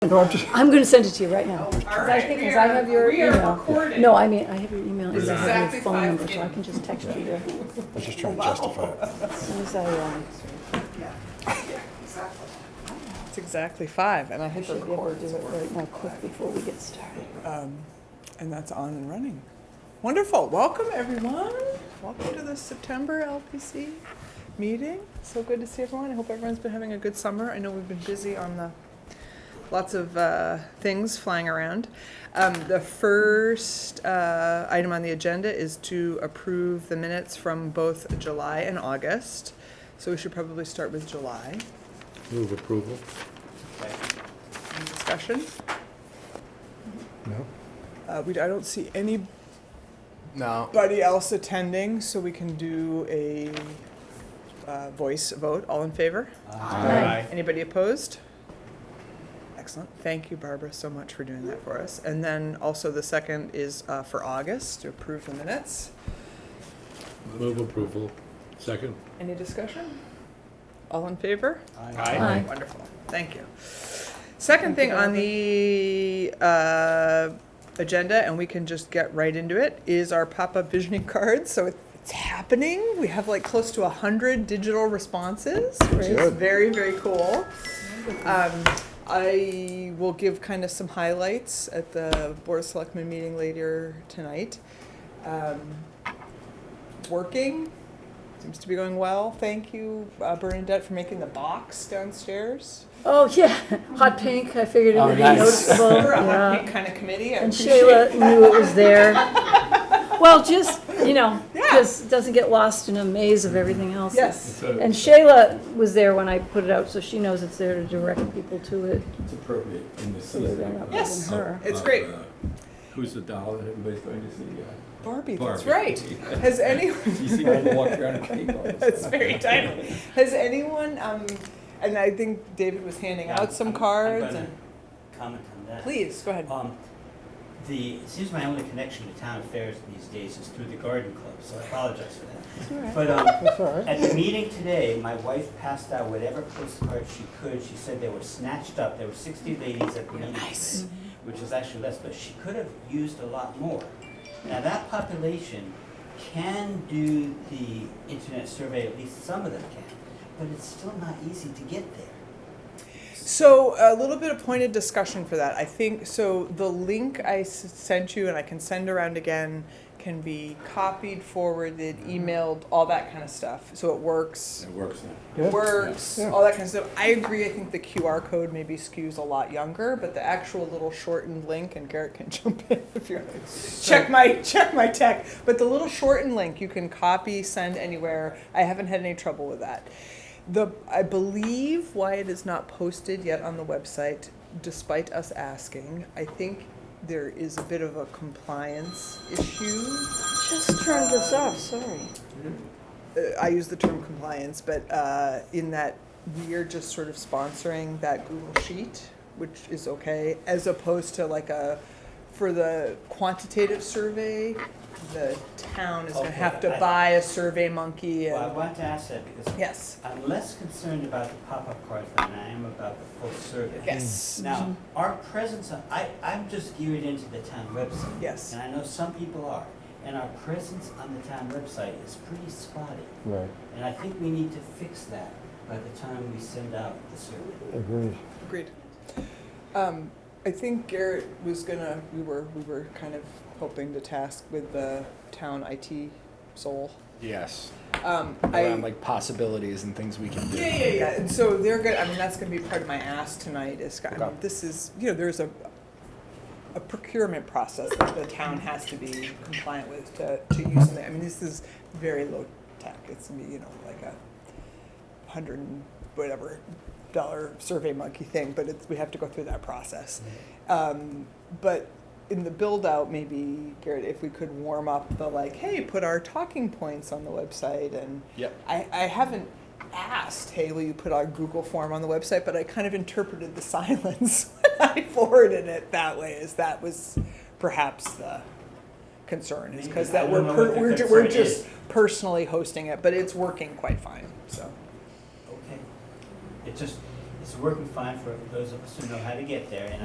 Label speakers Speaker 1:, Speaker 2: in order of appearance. Speaker 1: No, I'm just,
Speaker 2: I'm gonna send it to you right now. 'Cause
Speaker 3: All
Speaker 2: I
Speaker 3: right,
Speaker 2: think,
Speaker 3: we
Speaker 2: because I
Speaker 3: are-
Speaker 2: have your
Speaker 3: we are
Speaker 2: email.
Speaker 3: recording.
Speaker 2: No, I mean, I have your email, and I have
Speaker 3: Exactly
Speaker 2: your phone
Speaker 3: five
Speaker 2: number, so I
Speaker 3: minutes.
Speaker 2: can just text you there.
Speaker 1: I was just trying to justify it.
Speaker 2: As soon as I, um,
Speaker 3: It's exactly five, and I hit the
Speaker 2: should be able
Speaker 3: record,
Speaker 2: to do it right now, quick, before we get started.
Speaker 3: and that's on and running. Wonderful. Welcome, everyone. Welcome to the September LPC meeting. So good to see everyone. I hope everyone's been having a good summer. I know we've been busy on the lots of uh, things flying around. Um, the first uh, item on the agenda is to approve the minutes from both July and August. So we should probably start with July.
Speaker 1: Move approval.
Speaker 3: Any discussion?
Speaker 1: No?
Speaker 3: Uh, we, I don't see anybody
Speaker 4: No.
Speaker 3: else attending, so we can do a uh, voice vote. All in favor?
Speaker 2: Aye.
Speaker 3: Anybody opposed? Excellent. Thank you, Barbara, so much for doing that for us. And then also the second is uh, for August to approve the minutes.
Speaker 5: Move approval. Second.
Speaker 3: Any discussion? All in favor?
Speaker 2: Aye.
Speaker 3: Wonderful. Thank you. Second thing on the uh, agenda, and we can just get right into it, is our pop-up visioning cards. So it- it's happening. We have like close to 100 digital responses, which is
Speaker 1: Good.
Speaker 3: very, very cool. Um, I will give kind of some highlights at the Board of Selectmen meeting later tonight. Um, Working, seems to be going well. Thank you, uh, Bernadette, for making the box downstairs.
Speaker 2: Oh, yeah, hot pink, I figured it
Speaker 4: Oh,
Speaker 2: would be
Speaker 4: nice.
Speaker 2: noticeable,
Speaker 3: We're a hot
Speaker 2: yeah.
Speaker 3: pink kind of committee. I
Speaker 2: And
Speaker 3: appreciate
Speaker 2: Shayla knew it was there. Well, just, you know,
Speaker 3: Yeah.
Speaker 2: just doesn't get lost in a maze of everything else.
Speaker 3: Yes.
Speaker 5: uh,
Speaker 2: And Shayla was there when I put it out, so she knows it's there to direct people to it.
Speaker 5: It's appropriate in the
Speaker 2: So they're
Speaker 5: season.
Speaker 2: not
Speaker 3: Yes.
Speaker 2: leaving her.
Speaker 3: It's
Speaker 5: of,
Speaker 3: great.
Speaker 5: uh, Who's the doll that everybody's going to see? uh,
Speaker 3: Barbie, that's
Speaker 5: Barbie.
Speaker 3: right. Has anyone?
Speaker 5: You see people walk around and think all this
Speaker 3: That's
Speaker 5: stuff.
Speaker 3: very timely. Has anyone? Um, and I think David was handing
Speaker 4: Yeah,
Speaker 3: out some
Speaker 4: I'm- I'm
Speaker 3: cards.
Speaker 4: gonna
Speaker 3: And
Speaker 4: Comment on that.
Speaker 3: please go ahead.
Speaker 4: Um, the, it seems my only connection to town affairs these days is through the garden club, so I apologize for that. But, um,
Speaker 1: That's all right.
Speaker 4: at the meeting today, my wife passed out whatever postcards she could. She said they were snatched up. There were sixty ladies at the meeting today, which is actually less, but she could have used a lot more. Now, that population can do the internet survey, at least some of them can, but it's still not easy to get there.
Speaker 3: So a little bit of pointed discussion for that. I think so. The link I s- sent you and I can send around again can be copied, forwarded, emailed, all that kind of stuff. So it works.
Speaker 5: It works now.
Speaker 1: Good.
Speaker 3: works,
Speaker 1: Yeah.
Speaker 3: all that kind of stuff. I agree. I think the QR code maybe skews a lot younger, but the actual little shortened link, and Garrett can jump in if you're check my check my tech. But the little shortened link you can copy, send anywhere. I haven't had any trouble with that. The I believe why it is not posted yet on the website, despite us asking. I think there is a bit of a compliance issue
Speaker 2: Just turned this off, sorry.
Speaker 3: uh, I use the term compliance, but uh, in that we are just sort of sponsoring that Google Sheet, which is okay, as opposed to like a, for the quantitative survey, the town is gonna
Speaker 4: Okay,
Speaker 3: have to
Speaker 4: I-
Speaker 3: buy a survey monkey
Speaker 4: Well, I
Speaker 3: and,
Speaker 4: want to ask that because
Speaker 3: yes,
Speaker 4: I'm less concerned about the pop-up cards than I am about the full survey.
Speaker 3: yes,
Speaker 4: Now, our presence, on- I, I'm just geared into the town website.
Speaker 3: yes.
Speaker 4: And I know some people are, and our presence on the town website is pretty spotty.
Speaker 1: Right,
Speaker 4: And I think we need to fix that by the time we send out the survey.
Speaker 1: agreed.
Speaker 3: Agreed. Um, I think Garrett was gonna, we were, we were kind of hoping to task with the town IT soul.
Speaker 6: Yes,
Speaker 3: Um, I.
Speaker 6: around like possibilities and things we can do.
Speaker 3: Yeah, yeah, yeah. And so they're good. I mean, that's going to be part of my ask tonight. Is I mean,
Speaker 6: Okay.
Speaker 3: this is you know there's a a procurement process that the town has to be compliant with to, to use something. I mean, this is very low tech. It's gonna be, you know like a hundred and whatever dollar survey monkey thing, but it's, we have to go through that process.
Speaker 4: Mm-hmm.
Speaker 3: Um, but in the build out, maybe Garrett, if we could warm up the like, hey, put our talking points on the website and
Speaker 6: Yep.
Speaker 3: I, I haven't asked, hey, will you put our Google form on the website? But I kind of interpreted the silence when I forwarded it that way, as that was perhaps the concern, is because
Speaker 4: Maybe. I
Speaker 3: that
Speaker 4: don't
Speaker 3: we're,
Speaker 4: know
Speaker 3: per-
Speaker 4: what the
Speaker 3: we're, ju- we're
Speaker 4: concern
Speaker 3: just
Speaker 4: is.
Speaker 3: personally hosting it, but it's working quite fine, so.
Speaker 4: Okay? It just, it's working fine for those of us who know how to get there, and